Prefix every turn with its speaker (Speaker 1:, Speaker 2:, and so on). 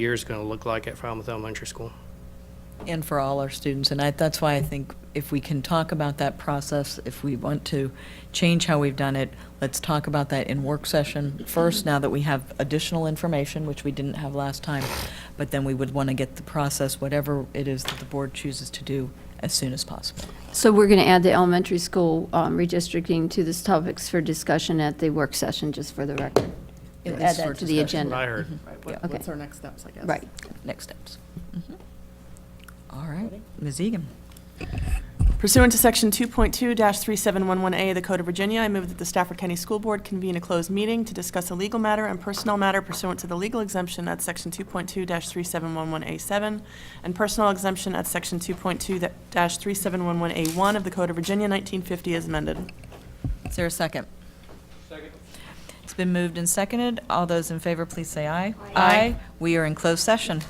Speaker 1: year's going to look like at Falmouth Elementary School.
Speaker 2: and for all our students. And I, that's why I think if we can talk about that process, if we want to change how we've done it, let's talk about that in work session first, now that we have additional information, which we didn't have last time. But then we would want to get the process, whatever it is that the board chooses to do, as soon as possible.
Speaker 3: So we're going to add the elementary school um, redistricting to this topics for discussion at the work session, just for the record.
Speaker 2: At
Speaker 3: Add
Speaker 2: least for
Speaker 3: that to the
Speaker 2: discussion.
Speaker 1: What I
Speaker 3: agenda.
Speaker 1: heard.
Speaker 4: Right,
Speaker 2: Yeah.
Speaker 4: what- what's our next steps, I guess?
Speaker 3: Right.
Speaker 2: Next steps. Mhm. All right, Ms. Egan.
Speaker 4: Pursuant to Section 2.2-3711A of the Code of Virginia, I move that the Stafford County School Board convene a closed meeting to discuss a legal matter and personnel matter pursuant to the legal exemption at Section 2.2-3711A7 and personnel exemption at Section 2.2-3711A1 of the Code of Virginia 1950 as amended.
Speaker 2: Is there a second? Second. It's been moved and seconded. All those in favor, please say aye. Aye. We are in closed session.